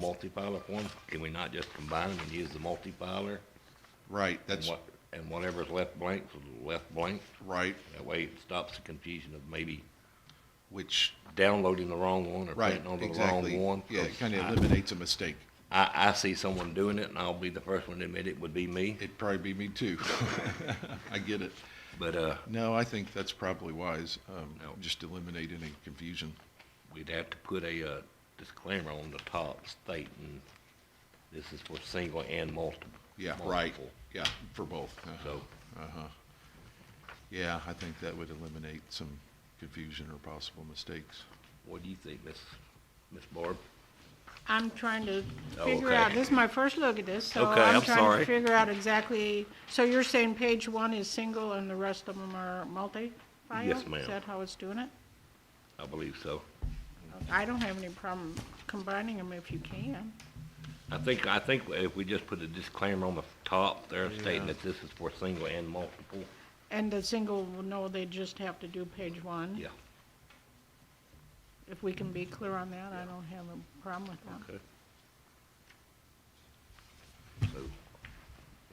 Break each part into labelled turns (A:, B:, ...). A: multi-pilot form, can we not just combine them and use the multi-piler?
B: Right,
A: And
B: that's
A: what- And whatever's left blank, is left blank,
B: right,
A: that way it stops the confusion of maybe
B: which,
A: downloading the wrong one or
B: right,
A: printing over the
B: exactly.
A: wrong one.
B: Yeah, it
A: 'cause
B: kind of
A: I-
B: eliminates a mistake.
A: I, I see someone doing it and I'll be the first one to admit it would be me,
B: It'd probably be me too. I get it.
A: but, uh,
B: No, I think that's probably wise. Um,
A: No.
B: just eliminate any confusion.
A: we'd have to put a, uh, disclaimer on the top stating this is for single and multiple.
B: Yeah, right.
A: multiple.
B: Yeah, for both. Uh-huh.
A: So,
B: Uh-huh. Yeah, I think that would eliminate some confusion or possible mistakes.
A: what do you think, Miss, Miss Barb?
C: I'm trying to
A: Oh,
C: figure
A: okay.
C: out, this is my first look at this, so
A: Okay, I'm
C: I'm trying
A: sorry.
C: to figure out exactly, so you're saying page one is single and the rest of them are multi?
A: Yes, ma'am.
C: Is that how it's doing it?
A: I believe so.
C: I don't have any problem combining them if you can.
A: I think, I think if we just put a disclaimer on the top there stating
B: Yeah.
A: that this is for single and multiple,
C: And the single, will know they just have to do page one?
A: yeah,
C: If we can be clear on that, I don't have a problem with that.
A: okay. So,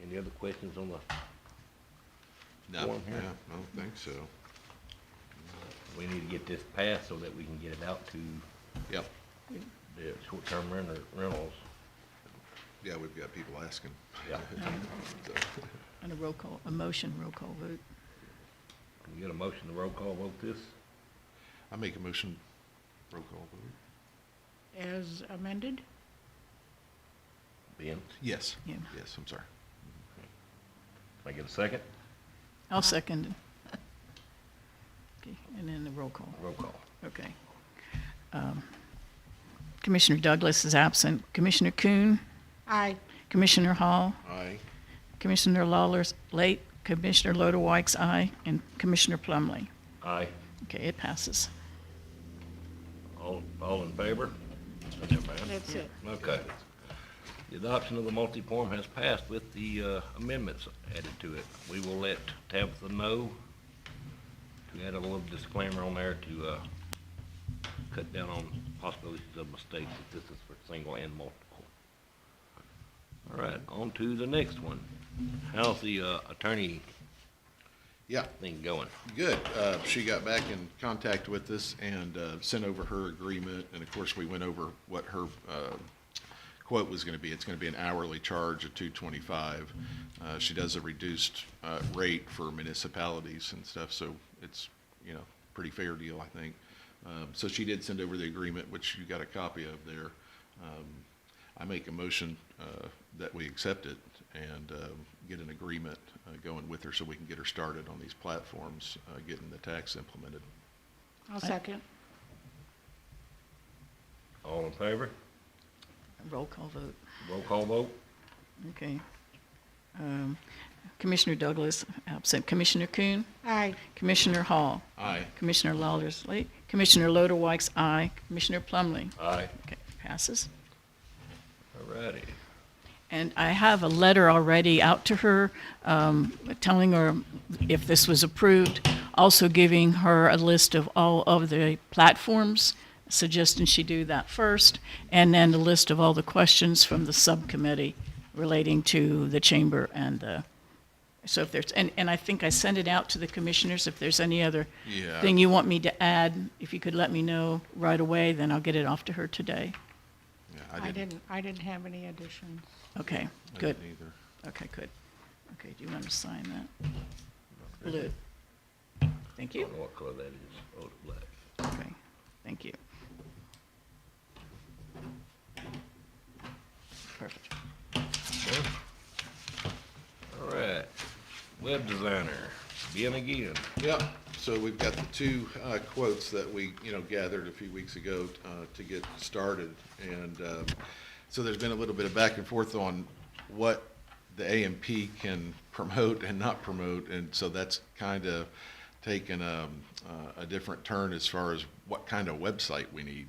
A: any other questions on the
B: No,
A: Warm here.
B: yeah, I don't think so.
A: We need to get this passed so that we can get it out to
B: Yep.
A: the short-term renter, rentals.
B: Yeah, we've got people asking.
A: Yeah.
B: So,
D: And a roll call, a motion roll call vote.
A: Can we get a motion to roll call vote this?
B: I make a motion, roll call vote.
C: As amended?
A: Ben, can
B: Yes.
D: Yeah.
B: Yes, I'm sorry.
A: I get a second?
D: I'll second. it. Okay, and then the roll call,
A: Roll call.
D: okay. Um, Commissioner Douglas is absent. Commissioner Kuhn,
C: Aye.
D: Commissioner Hall,
B: Aye.
D: Commissioner Lawler's late, Commissioner Lodewijk's aye, and Commissioner Plumley.
A: Aye.
D: Okay, it passes.
A: All, all in favor? Never mind.
C: That's it.
A: Okay. The adoption of the multi-form has passed with the uh, amendments added to it. We will let Tabitha know to add a little disclaimer on there to uh, cut down on possibilities of mistakes if this is for single and multiple. All right, on to the next one. How's the uh, attorney
B: Yeah,
A: thing going?
B: good. Uh, she got back in contact with us and, uh, sent over her agreement. And of course, we went over what her, uh, quote was gonna be. It's gonna be an hourly charge of two twenty-five. Uh, she does a reduced, uh, rate for municipalities and stuff, so it's, you know, pretty fair deal, I think. Um, so she did send over the agreement, which you got a copy of there. Um, I make a motion uh, that we accept it and um, get an agreement uh, going with her so we can get her started on these platforms, uh, getting the tax implemented.
C: I'll second.
A: All in favor?
D: Roll call vote,
A: Roll call vote?
D: okay. Um, Commissioner Douglas absent. Commissioner Kuhn,
C: Aye.
D: Commissioner Hall,
B: Aye.
D: Commissioner Lawler's late. Commissioner Lodewijk's aye. Commissioner Plumley.
A: Aye.
D: Okay, passes.
A: All righty.
D: And I have a letter already out to her um, telling her if this was approved, also giving her a list of all of the platforms, suggesting she do that first, and then a list of all the questions from the subcommittee relating to the chamber and the, so if there's, and, and I think I sent it out to the commissioners, if there's any other
B: Yeah.
D: thing you want me to add, if you could let me know right away, then I'll get it off to her today.
B: Yeah,
C: I didn't, I didn't have any additions.
D: Okay,
B: I
D: good.
B: didn't either.
D: Okay, good. Okay, do you want to sign that? Blue. Thank
A: I
D: you.
A: don't know what color that is. Oh, it's black.
D: Okay, thank you. Perfect.
A: All right, web designer, Ben again.
B: Yep, so we've got the two uh, quotes that we, you know, gathered a few weeks ago uh, to get started. And um, so there's been a little bit of back and forth on what the AMP can promote and not promote. And so that's kind of taken um, uh, a different turn as far as what kind of website we need.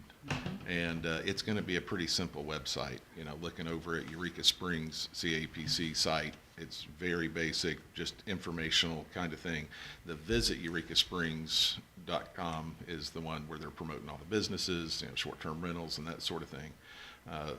B: And uh, it's going to be a pretty simple website, you know, looking over at Eureka Springs CAPC site. It's very basic, just informational kind of thing. The visit eurekasprings.com is the one where they're promoting all the businesses, you know, short-term rentals and that sort of thing. Uh,